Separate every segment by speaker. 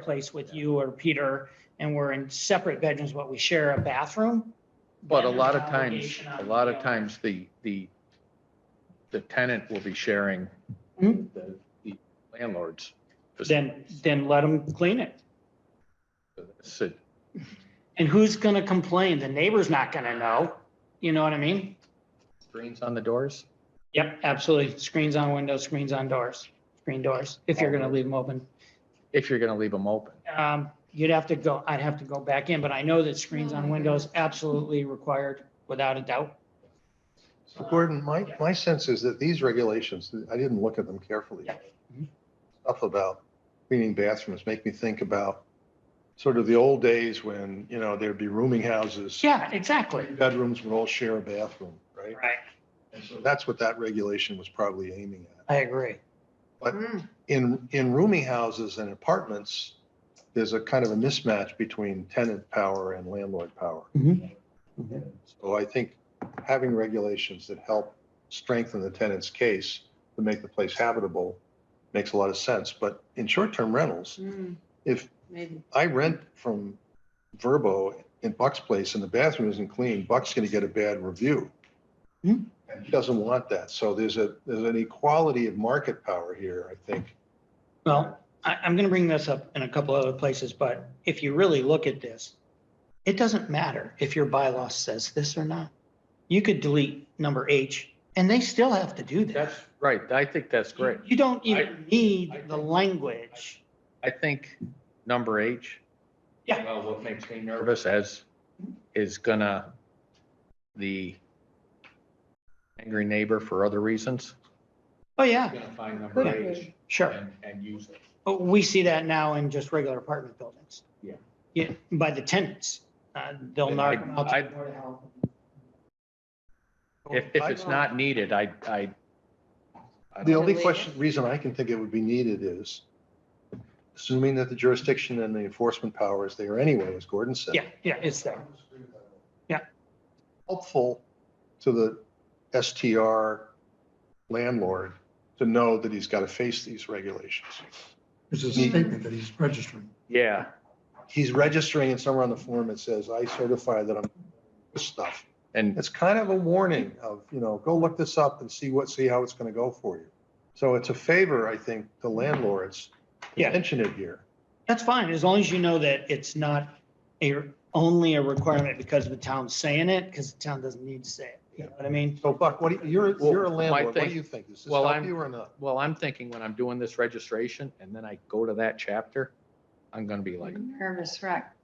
Speaker 1: place with you or Peter, and we're in separate bedrooms, but we share a bathroom.
Speaker 2: But a
Speaker 1: then
Speaker 2: lot of
Speaker 1: there's an
Speaker 2: times,
Speaker 1: obligation on
Speaker 2: a
Speaker 1: the
Speaker 2: lot of
Speaker 1: owner.
Speaker 2: times, the, the, the tenant will be sharing
Speaker 1: Hmm.
Speaker 2: the the landlord's.
Speaker 1: Then, then let them clean it.
Speaker 2: So,
Speaker 1: And who's gonna complain? The neighbor's not gonna know. You know what I mean?
Speaker 2: Screens on the doors?
Speaker 1: Yep, absolutely. Screens on windows, screens on doors, screen doors, if you're gonna leave them open.
Speaker 2: If you're going to leave them open.
Speaker 1: Um, you'd have to go, I'd have to go back in, but I know that screens on windows absolutely required, without a doubt.
Speaker 3: So Gordon, my, my sense is that these regulations, I didn't look at them carefully.
Speaker 1: Yeah. Mhm.
Speaker 3: Stuff about cleaning bathrooms make me think about sort of the old days when, you know, there'd be rooming houses.
Speaker 1: Yeah, exactly.
Speaker 3: Bedrooms would all share a bathroom, right?
Speaker 1: Right,
Speaker 3: And so that's what that regulation was probably aiming at.
Speaker 1: I agree.
Speaker 3: But- In, in rooming houses and apartments, there's a kind of a mismatch between tenant power and landlord power.
Speaker 1: Mhm. Mhm.
Speaker 3: So I think having regulations that help strengthen the tenant's case to make the place habitable makes a lot of sense. But in short-term rentals,
Speaker 4: Mm,
Speaker 3: if
Speaker 4: Maybe.
Speaker 3: I rent from Verbo in Buck's place and the bathroom isn't clean, Buck's going to get a bad review.
Speaker 1: Hmm.
Speaker 3: And he doesn't want that. So there's a, there's an equality of market power here, I think.
Speaker 1: Well, I, I'm gonna bring this up in a couple other places, but if you really look at this, it doesn't matter if your bylaw says this or not. You could delete number H, and they still have to do that.
Speaker 2: That's right. I think that's great.
Speaker 1: You don't
Speaker 2: I-
Speaker 1: even need
Speaker 2: I
Speaker 1: the
Speaker 2: think-
Speaker 1: language.
Speaker 2: I think number H.
Speaker 1: Yeah.
Speaker 2: Well, what makes me nervous as is gonna, the angry neighbor for other reasons.
Speaker 1: Oh, yeah,
Speaker 2: Gonna find number H
Speaker 1: sure.
Speaker 2: and, and use it.
Speaker 1: But we see that now in just regular apartment buildings.
Speaker 2: Yeah.
Speaker 1: Yeah, by the tenants, uh, they'll
Speaker 2: Then
Speaker 1: knock
Speaker 2: I'd-
Speaker 1: them out.
Speaker 2: I'd- If, if it's not needed, I, I. I
Speaker 3: The
Speaker 2: don't-
Speaker 3: only
Speaker 4: Delete it.
Speaker 3: question, reason I can think it would be needed is, assuming that the jurisdiction and the enforcement power is there anyway, as Gordon said.
Speaker 1: Yeah, yeah, it's there. Yeah.
Speaker 3: Helpful to the STR landlord to know that he's got to face these regulations.
Speaker 5: There's a statement that he's registering.
Speaker 2: Yeah.
Speaker 3: He's registering and somewhere on the form, it says, I certify that I'm this stuff.
Speaker 2: And
Speaker 3: It's kind of a warning of, you know, go look this up and see what, see how it's going to go for you. So it's a favor, I think, to landlords to
Speaker 1: Yeah.
Speaker 3: mention it here.
Speaker 1: That's fine, as long as you know that it's not a, only a requirement because the town's saying it, because the town doesn't need to say it. You know what I mean?
Speaker 3: So Buck, what, do you- you're, you're a
Speaker 2: Well, my
Speaker 3: landlord, what do
Speaker 2: thing-
Speaker 3: you think? Does this
Speaker 2: well,
Speaker 3: help
Speaker 2: I'm-
Speaker 3: you or not?
Speaker 2: Well, I'm thinking when I'm doing this registration and then I go to that chapter, I'm gonna be like,
Speaker 4: Mm-hmm. Nervous wreck.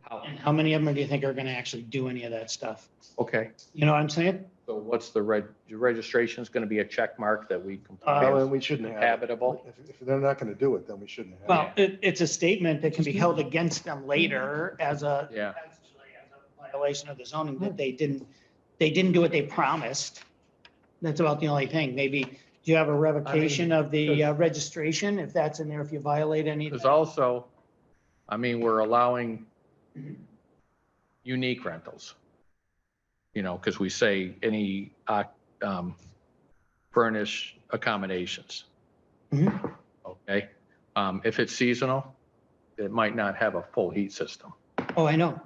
Speaker 2: how,
Speaker 1: And how many of them do you think are gonna actually do any of that stuff?
Speaker 2: okay,
Speaker 1: You know what I'm saying?
Speaker 2: so what's the reg, the registration's gonna be a check mark that we
Speaker 3: Well,
Speaker 2: comply
Speaker 3: then
Speaker 2: with
Speaker 3: Uh, we shouldn't have. it.
Speaker 2: habitable?
Speaker 3: If, if they're not gonna do it, then we shouldn't have.
Speaker 1: Well, it, it's a statement that can be held against them later as a,
Speaker 2: Yeah,
Speaker 1: as a violation of the zoning, that they didn't, they didn't do what they promised. That's about the only thing. Maybe, do you have a revocation of the uh, registration, if that's in there, if you violate any?
Speaker 2: because also, I mean, we're allowing unique rentals. You know, because we say any, uh, um, furnished accommodations.
Speaker 1: Mhm.
Speaker 2: Okay, um, if it's seasonal, it might not have a full heat system,
Speaker 1: Oh, I know.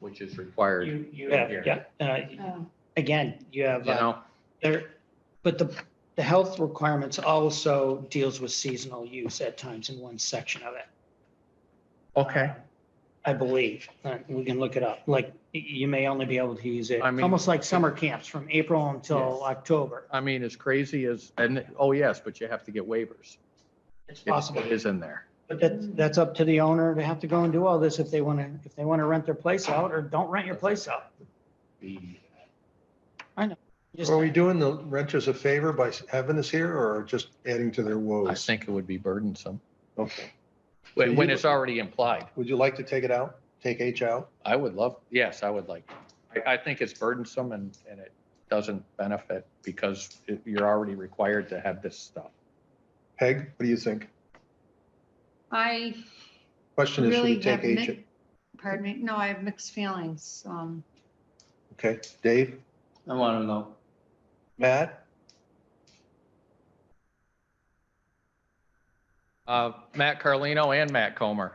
Speaker 2: which is required.
Speaker 1: You, you have, yeah, uh,
Speaker 4: Oh,
Speaker 1: again, you have,
Speaker 2: You
Speaker 1: uh,
Speaker 2: know,
Speaker 1: there, but the, the health requirements also deals with seasonal use at times in one section of it.
Speaker 2: okay,
Speaker 1: I believe, Uh, we can look it up, like, y- you may only be able to use it,
Speaker 2: I mean-
Speaker 1: almost like summer camps from April until
Speaker 2: Yes.
Speaker 1: October.
Speaker 2: I mean, as crazy as, and, oh, yes, but you have to get waivers.
Speaker 1: It's
Speaker 2: It-
Speaker 1: possible,
Speaker 2: It is in there.
Speaker 1: but that's, that's up to the owner to have to go and do all this if they want to, if they want to rent their place out or don't rent your place out. Just-
Speaker 3: Are we doing the renters a favor by having this here or just adding to
Speaker 2: I
Speaker 3: their woes?
Speaker 2: think it would be burdensome,
Speaker 3: Okay.
Speaker 2: when
Speaker 3: you-
Speaker 2: when it's already implied.
Speaker 3: Would you like to take it out? Take H out?
Speaker 2: I would love, yes, I would like, I, I think it's burdensome and, and it doesn't benefit because it- you're already required to have this stuff.
Speaker 3: Peg, what do you think?
Speaker 4: I
Speaker 3: Question is, should we
Speaker 4: really
Speaker 3: take
Speaker 4: have,
Speaker 3: H?
Speaker 4: mi- pardon me, no, I have mixed feelings. Um,
Speaker 3: Okay, Dave,
Speaker 6: I want to know.
Speaker 3: Matt?
Speaker 2: Uh, Matt Carlino and Matt Comer.